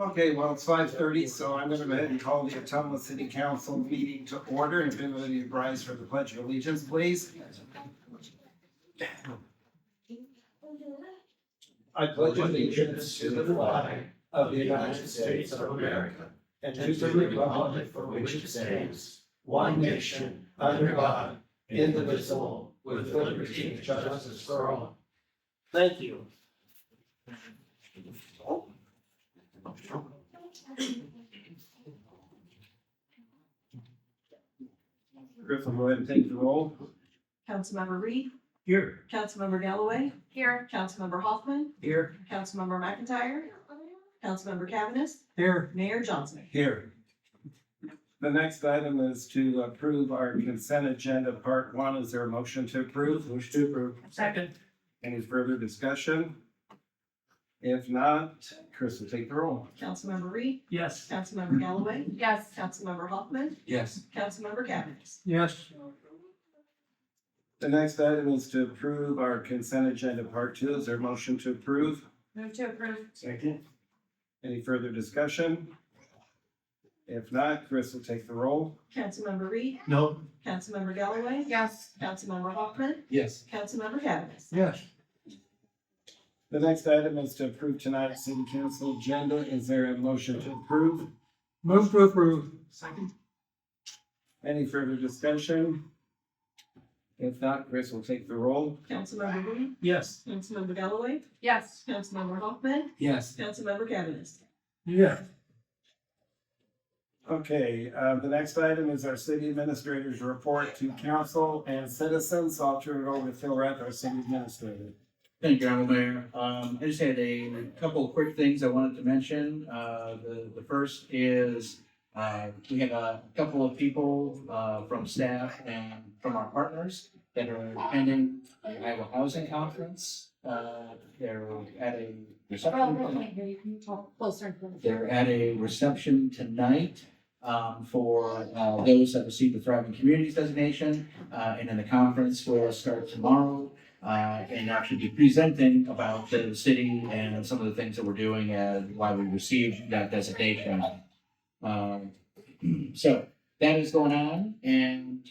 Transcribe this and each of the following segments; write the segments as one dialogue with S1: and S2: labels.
S1: Okay, well, it's five thirty, so I'm gonna go ahead and call the Atomo City Council meeting to order. If anybody would rise for the pledge of allegiance, please. I pledge allegiance to the flag of the United States of America and to the republic for which it stands, one nation, under God, indivisible, with liberty and justice for all.
S2: Thank you.
S1: Griffin, go ahead and take the roll.
S3: Councilmember Reed,
S2: Here.
S3: Councilmember Galloway. Here. Councilmember Hoffman,
S2: Here.
S3: Councilmember McIntyre, Councilmember Cavanagh,
S1: Here.
S3: Mayor Johnson.
S1: Here. The next item is to approve our consent agenda, part one. Is there a motion to approve? Motion to approve.
S2: Second.
S1: Any further discussion? If not, Chris will take the roll.
S3: Councilmember Reed,
S2: Yes.
S3: Councilmember Galloway,
S4: Yes.
S3: Councilmember Hoffman,
S2: Yes.
S3: Councilmember Cavanagh.
S2: Yes.
S1: The next item is to approve our consent agenda, part two. Is there a motion to approve?
S4: Move to approve.
S1: Second. Any further discussion? If not, Chris will take the roll.
S3: Councilmember Reed,
S2: No.
S3: Councilmember Galloway,
S4: Yes.
S3: Councilmember Hoffman,
S2: Yes.
S3: Councilmember Cavanagh.
S2: Yes.
S1: The next item is to approve tonight's city council agenda. Is there a motion to approve?
S2: Move to approve. Second.
S1: Any further discussion? If not, Chris will take the roll.
S3: Councilmember Reed,
S2: Yes.
S3: Councilmember Galloway,
S4: Yes.
S3: Councilmember Hoffman,
S2: Yes.
S3: Councilmember Cavanagh.
S2: Yeah.
S1: Okay, uh, the next item is our city administrator's report to council and citizens. So I'll turn it over to Phil Rath, our city administrator.
S5: Thank you, Honorable Mayor. Um, I just had a a couple of quick things I wanted to mention. Uh, the, the first is, uh, we had a couple of people, uh, from staff and from our partners that are attending the Iowa Housing Conference. Uh, they're at a reception.
S4: hear you. Can you talk closer?
S5: They're at a reception tonight um, for uh, those that receive the Thriving Communities designation. Uh, And then the conference will start tomorrow uh, and actually be presenting about the city and some of the things that we're doing and why we received that designation. Um, So that is going on. And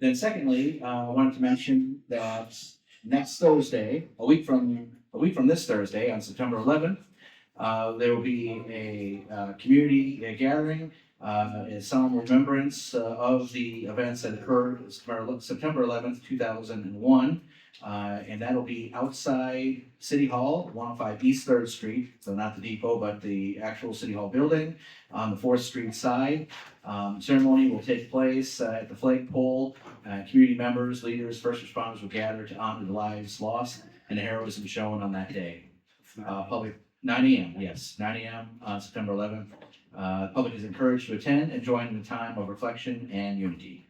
S5: then secondly, uh, I wanted to mention that next Thursday, a week from, a week from this Thursday, on September 11th, uh, there will be a, uh, community uh, gathering, uh, in solemn remembrance uh, of the events that occurred September- September eleventh, two thousand and one. Uh, and that'll be outside City Hall, one oh five East Third Street, so not the depot, but the actual City Hall building on the Fourth Street side. Um, ceremony will take place uh, at the flag pole. Uh, community members, leaders, first responders will gather to honor the lives lost and the heroism shown on that day. Uh, public Nine AM, yes, nine AM on September eleventh. Uh, public is encouraged to attend and join in the time of reflection and unity.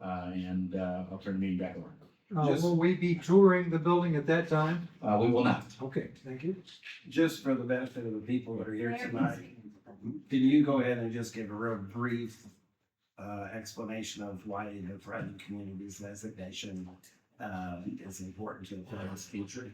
S5: Uh, and, uh, I'll turn the meeting back over.
S2: Uh, will we be touring the building at that time?
S5: Uh, we will not.
S2: Okay, thank you.
S1: Just for the benefit of the people that are here tonight, can you go ahead and just give a real brief uh, explanation of why the Thriving Communities designation uh, is important to the town's future?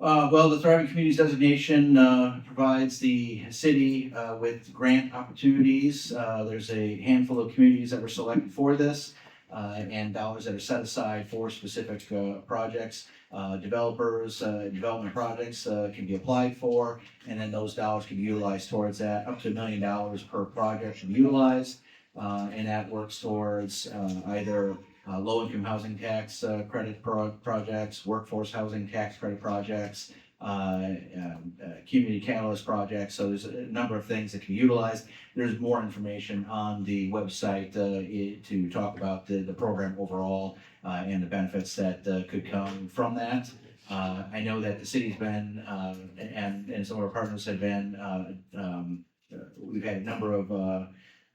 S5: Uh, well, the thriving communities designation, uh, provides the city, uh, with grant opportunities. Uh, there's a handful of communities that were selected for this, uh, and dollars that are set aside for specific, uh, projects. Uh, developers, uh, development projects, uh, can be applied for, and then those dollars can be utilized towards that. Up to a million dollars per project should be utilized. Uh, and that works towards, uh, either, uh, low-income housing tax uh, credit pro- projects, workforce housing tax credit projects, uh, um, uh, community catalyst projects. So there's a number of things that can be utilized. There's more information on the website uh, i- to talk about the, the program overall uh, and the benefits that uh, could come from that. Uh, I know that the city's been, uh, and, and some of our partners have been, uh, um, uh, we've had a number of uh,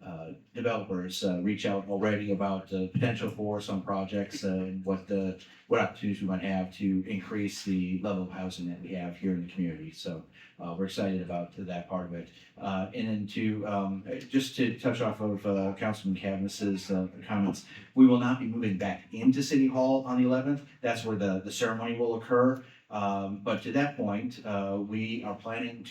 S5: uh, developers uh, reach out already about uh, potential for some projects uh, and what the what opportunities we might have to increase the level of housing that we have here in the community. So uh, we're excited about that part of it. Uh, and then to um, just to touch off of uh, Councilman Cavanagh's uh, comments, we will not be moving back into City Hall on the 11th. That's where the the ceremony will occur. Um, but to that point, uh, we are planning